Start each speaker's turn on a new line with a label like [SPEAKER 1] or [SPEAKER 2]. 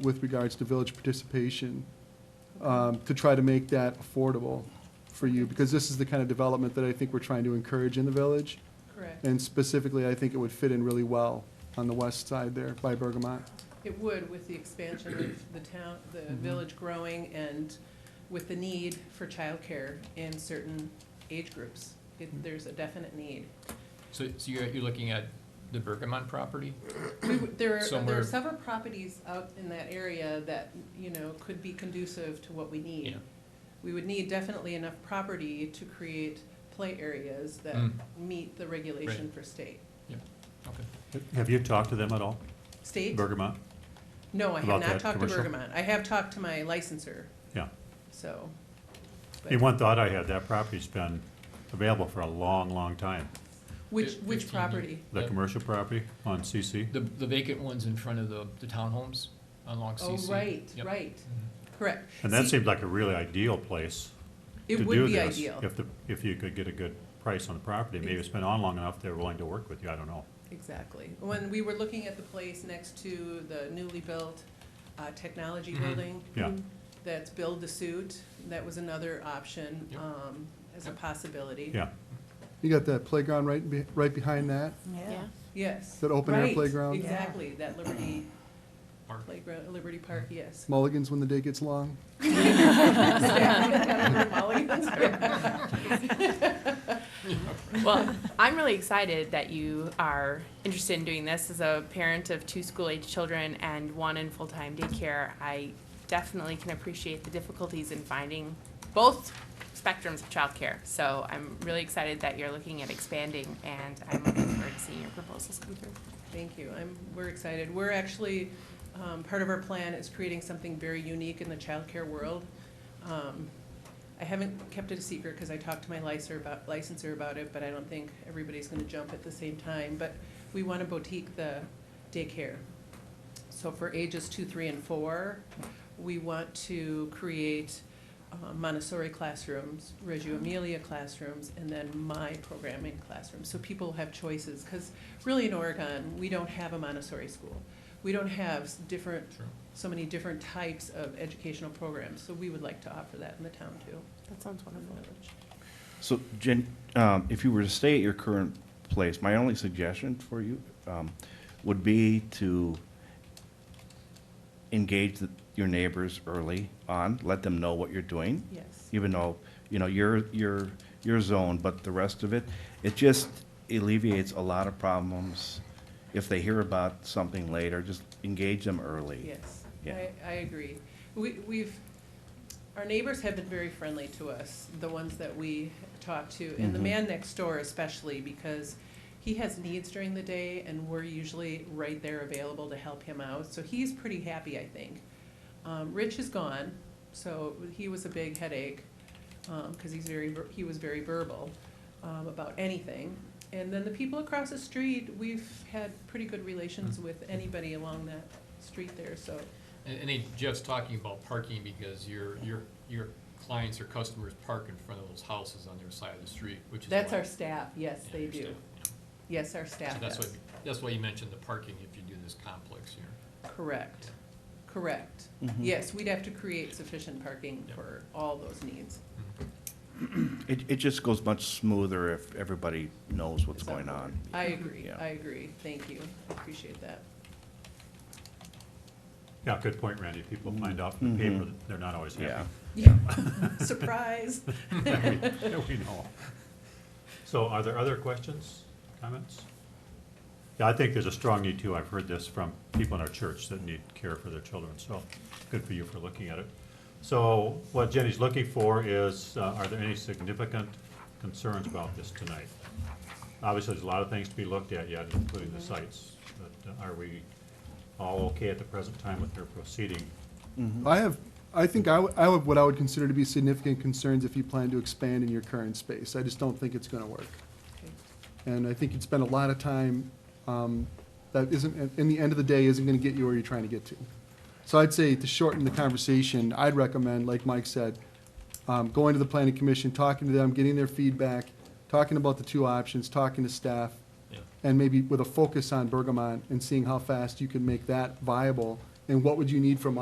[SPEAKER 1] with regards to village participation, um, to try to make that affordable for you, because this is the kind of development that I think we're trying to encourage in the village.
[SPEAKER 2] Correct.
[SPEAKER 1] And specifically, I think it would fit in really well on the west side there by Bergamot.
[SPEAKER 2] It would with the expansion of the town, the village growing and with the need for childcare in certain age groups. It- There's a definite need.
[SPEAKER 3] So, so you're, you're looking at the Bergamont property?
[SPEAKER 2] We would- There are, there are
[SPEAKER 3] Somewhere-
[SPEAKER 2] several properties out in that area that, you know, could be conducive to what we need.
[SPEAKER 3] Yeah.
[SPEAKER 2] We would need definitely enough property to create play areas that
[SPEAKER 3] Mm.
[SPEAKER 2] meet the regulation for state.
[SPEAKER 3] Okay.
[SPEAKER 4] Have you talked to them at all,
[SPEAKER 2] State?
[SPEAKER 4] Bergamot?
[SPEAKER 2] No, I have
[SPEAKER 4] about
[SPEAKER 2] not
[SPEAKER 4] that
[SPEAKER 2] talked to
[SPEAKER 4] commercial?
[SPEAKER 2] Bergamot. I have talked to my licenser,
[SPEAKER 4] Yeah.
[SPEAKER 2] so.
[SPEAKER 4] And one thought I had, that property's been available for a long, long time.
[SPEAKER 2] Which,
[SPEAKER 3] Fif-
[SPEAKER 2] which
[SPEAKER 3] 15 years.
[SPEAKER 2] property?
[SPEAKER 4] The
[SPEAKER 3] Yeah.
[SPEAKER 4] commercial property on CC,
[SPEAKER 3] The, the vacant ones in front of the, the townhomes along
[SPEAKER 2] Oh,
[SPEAKER 3] CC.
[SPEAKER 2] right,
[SPEAKER 3] Yep. Mm-hmm,
[SPEAKER 2] right, correct.
[SPEAKER 4] and that
[SPEAKER 2] See,
[SPEAKER 4] seemed like a really ideal place to
[SPEAKER 2] It
[SPEAKER 4] do this.
[SPEAKER 2] would be ideal,
[SPEAKER 4] If the, if you could get a good price on the property, maybe it's been on long enough, they're willing to work with you, I don't know.
[SPEAKER 2] exactly. When we were looking at the place next to the newly built uh, technology
[SPEAKER 3] Mhm.
[SPEAKER 2] building.
[SPEAKER 4] Yeah.
[SPEAKER 2] That's build to suit, that was another option
[SPEAKER 3] Yep.
[SPEAKER 2] um, as a
[SPEAKER 3] Yep.
[SPEAKER 2] possibility.
[SPEAKER 4] Yeah,
[SPEAKER 1] You got that playground right, be- right behind that,
[SPEAKER 5] Yeah.
[SPEAKER 2] Yes.
[SPEAKER 1] that open air
[SPEAKER 2] Right,
[SPEAKER 1] playground.
[SPEAKER 2] Exactly, that Liberty
[SPEAKER 3] Park. Mm-hmm.
[SPEAKER 2] playground, Liberty Park, yes.
[SPEAKER 1] Mulligans when the day gets long.
[SPEAKER 5] Well, I'm really excited that you are interested in doing this. As a parent of two school-age children and one in full-time daycare, I definitely can appreciate the difficulties in finding both spectrums of childcare. So I'm really excited that you're looking at expanding, and I'm looking forward to seeing your proposals come through.
[SPEAKER 2] Thank you. I'm, we're excited. We're actually, um, part of our plan is creating something very unique in the childcare world. Um, I haven't kept it a secret because I talked to my licer about, licenser about it, but I don't think everybody's gonna jump at the same time. But we wanna boutique the daycare. So for ages two, three, and four, we want to create uh, Montessori classrooms, Reggio Emilia classrooms, and then my programming classrooms. So people have choices, because really in Oregon, we don't have a Montessori school. We don't have s- different,
[SPEAKER 3] True.
[SPEAKER 2] so many different types of educational programs, so we would like to offer that in the town too,
[SPEAKER 5] That sounds
[SPEAKER 2] in the
[SPEAKER 5] wonderful.
[SPEAKER 2] village.
[SPEAKER 6] So Jen, um, if you were to stay at your current place, my only suggestion for you, um, would be to engage the- your neighbors early on, let them know what you're doing,
[SPEAKER 2] Yes,
[SPEAKER 6] even though, you know, your, your, your zone, but the rest of it, it just alleviates a lot of problems. If they hear about something later, just engage them early.
[SPEAKER 2] yes,
[SPEAKER 6] Yeah.
[SPEAKER 2] I, I agree. We, we've, our neighbors have been very friendly to us, the ones that we talk to, and the
[SPEAKER 6] Mhm.
[SPEAKER 2] man next door especially, because he has needs during the day, and we're usually right there available to help him out, so he's pretty happy, I think. Um, Rich is gone, so he was a big headache, um, cause he's very, ver- he was very verbal, um, about anything. And then the people across the street, we've had pretty good relations with anybody along that street there, so,
[SPEAKER 3] And, and then Jeff's talking about parking because your, your, your clients or customers park in front of those houses on their side of the street, which is.
[SPEAKER 2] that's
[SPEAKER 3] why-
[SPEAKER 2] our staff, yes,
[SPEAKER 3] Yeah,
[SPEAKER 2] they
[SPEAKER 3] your
[SPEAKER 2] do,
[SPEAKER 3] staff, yeah.
[SPEAKER 2] yes, our
[SPEAKER 3] So
[SPEAKER 2] staff
[SPEAKER 3] that's why,
[SPEAKER 2] does,
[SPEAKER 3] that's why you mentioned the parking if you do this complex here.
[SPEAKER 2] correct, correct.
[SPEAKER 6] Mhm.
[SPEAKER 2] Yes, we'd have to create sufficient parking
[SPEAKER 3] Yep.
[SPEAKER 2] for all those needs.
[SPEAKER 6] It, it just goes much smoother if everybody knows what's
[SPEAKER 2] Is that
[SPEAKER 6] going
[SPEAKER 2] what
[SPEAKER 6] on.
[SPEAKER 2] I agree,
[SPEAKER 6] Yeah.
[SPEAKER 2] I agree, thank you, I appreciate that.
[SPEAKER 4] yeah, good point, Randy. People find out from the
[SPEAKER 6] Mhm.
[SPEAKER 4] paper that they're not always
[SPEAKER 6] Yeah.
[SPEAKER 4] happy.
[SPEAKER 2] Yeah, surprise.
[SPEAKER 4] That we- that we know. So are there other questions, comments? Yeah, I think there's a strong need too. I've heard this from people in our church that need care for their children, so good for you for looking at it. So what Jenny's looking for is, uh, are there any significant concerns about this tonight? Obviously, there's a lot of things to be looked at yet, including the sites, but uh, are we all okay at the present time with her proceeding?
[SPEAKER 1] I have, I think I would, I would, what I would consider to be significant concerns if you plan to expand in your current space. I just don't think it's gonna work. And I think you'd spend a lot of time, um, that isn't, in the end of the day, isn't gonna get you where you're trying to get to. So I'd say to shorten the conversation, I'd recommend, like Mike said, um, going to the planning commission, talking to them, getting their feedback, talking about the two options, talking to staff,
[SPEAKER 3] Yeah.
[SPEAKER 1] and maybe with a focus on Bergamot and seeing how fast you can make that viable and what would you need from